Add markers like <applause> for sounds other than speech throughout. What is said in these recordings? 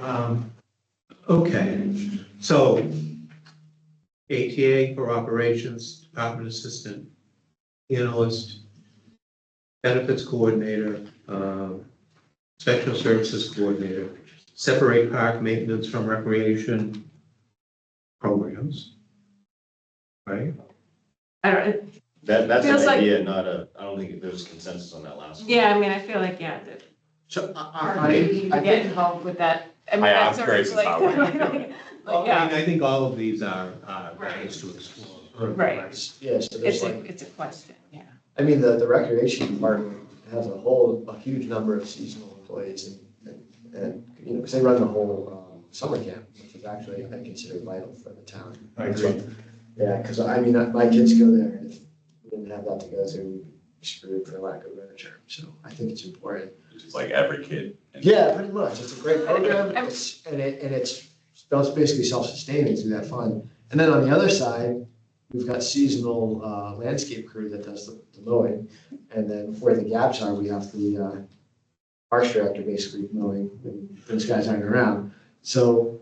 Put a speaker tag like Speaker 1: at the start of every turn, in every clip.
Speaker 1: Um, Okay, so ATA for operations, department assistant, analyst, benefits coordinator, um, special services coordinator, separate park maintenance from recreation programs. Right?
Speaker 2: I don't,
Speaker 3: That, that's
Speaker 2: Feels
Speaker 3: an
Speaker 2: like-
Speaker 3: idea, not a, I don't think there was consensus on that last one.
Speaker 2: yeah, I mean, I feel like, yeah, that
Speaker 4: So I,
Speaker 2: hard to
Speaker 4: I- I
Speaker 2: even get
Speaker 4: think,
Speaker 2: involved with that. I mean,
Speaker 5: I
Speaker 2: that's
Speaker 5: asked
Speaker 2: sort of
Speaker 5: Grace
Speaker 2: like,
Speaker 5: how I would do
Speaker 2: like, <laughs>
Speaker 1: Well, I
Speaker 2: yeah,
Speaker 1: mean, I think all of these are, are ways to explore.
Speaker 2: Right.
Speaker 4: yeah, so there's
Speaker 2: it's a,
Speaker 4: like,
Speaker 2: it's a question, yeah.
Speaker 4: I mean, the, the recreation department has a whole, a huge number of seasonal employees and- and, and, you know, because they run the whole um, summer camp, which is actually, I consider vital for the town.
Speaker 1: I agree.
Speaker 4: Yeah, because I mean, uh, my kids go there, and if we didn't have that to go to, we'd be screwed for lack of a better term, so I think it's important.
Speaker 5: It's like every kid. in-
Speaker 4: Yeah, pretty much, it's a great program,
Speaker 2: I'm-
Speaker 4: it's, and it, and it's, it's basically self-sustaining through that fund. And then on the other side, we've got seasonal, uh, landscape crew that does the the mowing, and then where the gaps are, we have the, uh, parks director basically mowing, when those guys aren't around, so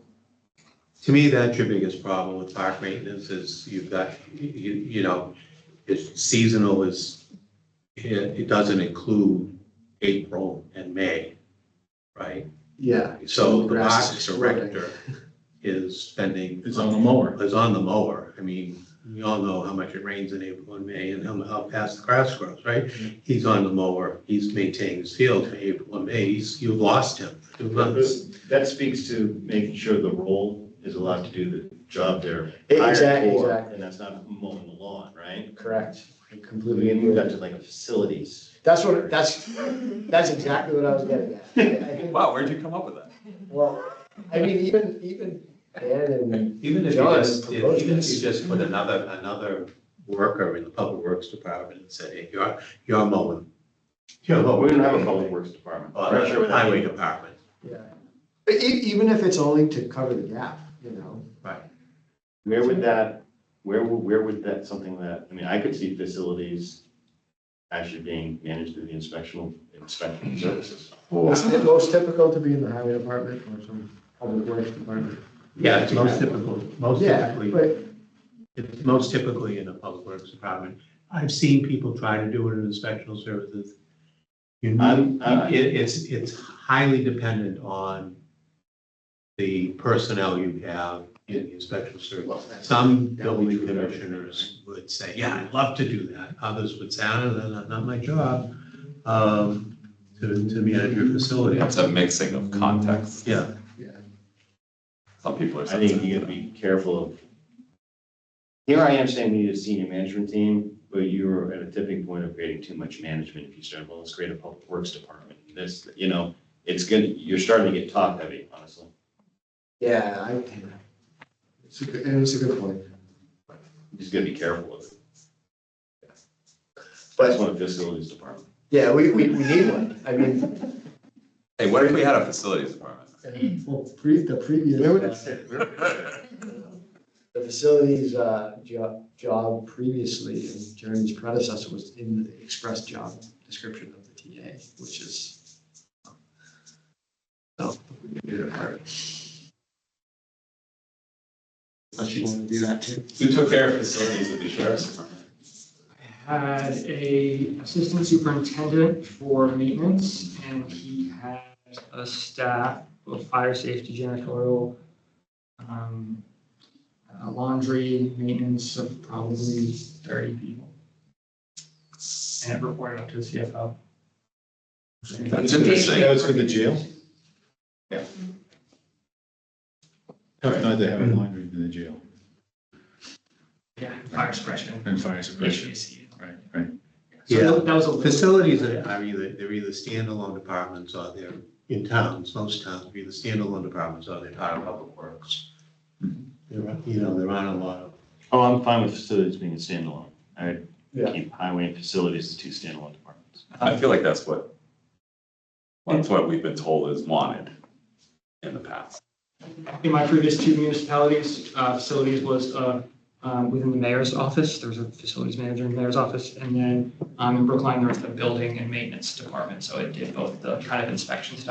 Speaker 1: To me, that's your biggest problem with park maintenance is you've got, you, you know, it's seasonal is, it, it doesn't include April and May, right?
Speaker 4: Yeah.
Speaker 1: So the
Speaker 4: Grass
Speaker 1: parks
Speaker 4: is
Speaker 1: director is spending.
Speaker 6: It's on the mower.
Speaker 1: Is on the mower. I mean, we all know how much it rains in April and May and how, how fast the grass grows, right? He's on the mower. He's maintaining his field for April and May. He's, you lost him. for two months.
Speaker 3: That speaks to making sure the role is allowed to do the job they're
Speaker 4: E-
Speaker 3: hired
Speaker 4: exactly,
Speaker 3: for,
Speaker 4: exactly.
Speaker 3: and that's not mowing the lawn, right?
Speaker 4: Correct. I
Speaker 3: We
Speaker 4: Completely.
Speaker 3: can move that
Speaker 4: agree.
Speaker 3: to like a facilities.
Speaker 4: That's what, that's, that's exactly what I was getting at. I- I think-
Speaker 5: Wow, where'd you come up with that?
Speaker 4: Well, I mean, even, even Dan and,
Speaker 1: Even if you
Speaker 4: John
Speaker 1: just, if-
Speaker 4: proposed
Speaker 1: even if you
Speaker 4: this.
Speaker 1: just put another, another worker in the public works department and said, hey, you're, you're mowing. You're
Speaker 3: But we
Speaker 1: mowing.
Speaker 3: don't have a public works department.
Speaker 1: Or
Speaker 3: I'm not sure what that
Speaker 1: highway
Speaker 3: means.
Speaker 1: department,
Speaker 4: yeah. But e- even if it's only to cover the gap, you know,
Speaker 1: right.
Speaker 3: Where would that, where, would- where would that, something that, I mean, I could see facilities actually being managed through the inspectional, inspection services.
Speaker 4: isn't it most typical to be in the highway department or some public works department?
Speaker 1: Yeah, it's most typical, most
Speaker 4: Yeah,
Speaker 1: typically,
Speaker 4: but,
Speaker 1: it's most typically in the public works department. I've seen people try to do it in inspectional services. You
Speaker 3: I'm-
Speaker 1: need,
Speaker 3: I-
Speaker 1: it, it's, it's highly dependent on the personnel you have in the inspection service.
Speaker 4: well, that's-
Speaker 1: Some
Speaker 4: That would
Speaker 1: building
Speaker 4: be true of everything,
Speaker 1: commissioners would say, yeah, I'd love to do that. Others would say, "Ah, no, no, not my job, um, to, to manage your facility.
Speaker 5: It's a mixing of contexts.
Speaker 1: Yeah,
Speaker 4: yeah.
Speaker 5: Some people are
Speaker 3: I think you
Speaker 5: sensitive.
Speaker 3: gotta be careful of. Here I am saying we need a senior management team, but you're at a tipping point of creating too much management if you start, well, let's create a public works department. This, you know, it's gonna, you're starting to get top heavy, honestly.
Speaker 4: Yeah, I, yeah. it's a good, and it's a good point.
Speaker 3: You Just gotta be careful of it. That's
Speaker 4: But,
Speaker 3: one of the facilities department.
Speaker 4: yeah, we, we, we need one. I mean,
Speaker 5: Hey, what if we had a facilities
Speaker 3: <laughs>
Speaker 5: department?
Speaker 4: Well, <laughs> pre, the previous, uh, the facilities, uh, job, job previously, and Jeremy's predecessor was in the express job description of the TA, which is. So, we can do it apart. Unless you wanna do that too.
Speaker 5: Who took care of facilities at the sheriff's department?
Speaker 7: I had a assistant superintendent for maintenance and he had a staff of fire safety, janitorial, um, uh, laundry, maintenance of probably thirty people. And it reported up to the CFO.
Speaker 5: That's interesting.
Speaker 6: was for the jail?
Speaker 5: Yeah.
Speaker 6: No, they have a laundry in the jail
Speaker 7: Yeah, fire suppression.
Speaker 6: and fire suppression,
Speaker 7: HVAC.
Speaker 6: right, right.
Speaker 7: So that was a little.
Speaker 1: Facilities are are either, they're either standalone departments or they're in towns, most towns, they're either standalone departments or they're part of public works. There are, you know, there aren't a lot of,
Speaker 3: Oh, I'm fine with facilities being a standalone. I would
Speaker 4: Yeah.
Speaker 3: keep highway and facilities as two standalone departments.
Speaker 5: I feel like that's what, that's what we've been told is wanted in the past.
Speaker 7: In my previous two municipalities, uh, facilities was, uh, um, within the mayor's office, there was a facilities manager in the mayor's office, and then, um, in Brookline, there was the building and maintenance department, so it did both the kind of inspection stuff